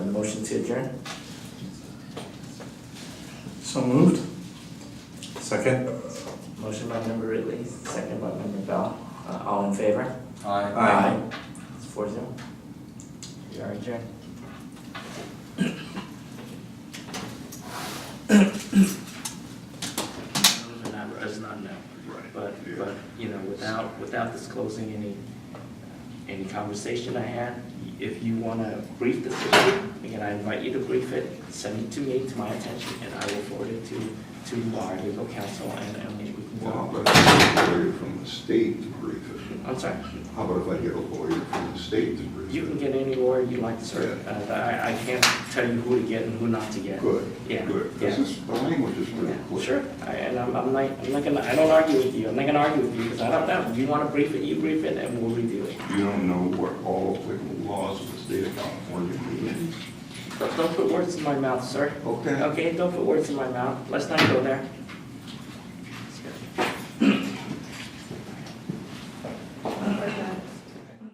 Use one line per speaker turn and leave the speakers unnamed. motion to adjourn?
So moved. Second.
Motion by member Ridley, second by member Bell. Uh, all in favor?
Aye.
It's four zero. We are adjourned.
Does not, does not know. But, but, you know, without, without disclosing any, any conversation I had, if you wanna brief the city, again, I invite you to brief it, send it to me, to my attention, and I will forward it to, to our legal counsel, and, and we can
Well, how
go.
about if I get a lawyer from the state to brief it?
I'm sorry,
How about if I get a lawyer from the state to brief it?
you can get any lawyer you like, sir, uh, I, I can't tell you who to get and who not to get.
Good,
Yeah,
good.
yeah.
This is, the language is pretty
Yeah,
clear.
Sure, I- and I'm, I'm not, I'm not gonna, I don't argue with you, I'm not gonna argue with you, because I don't know, you wanna brief it, you brief it, and we'll review it.
You don't know what all applicable laws of the state of California mean.
But don't put words in my mouth, sir.
Okay.
Okay, don't put words in my mouth, let's not go there.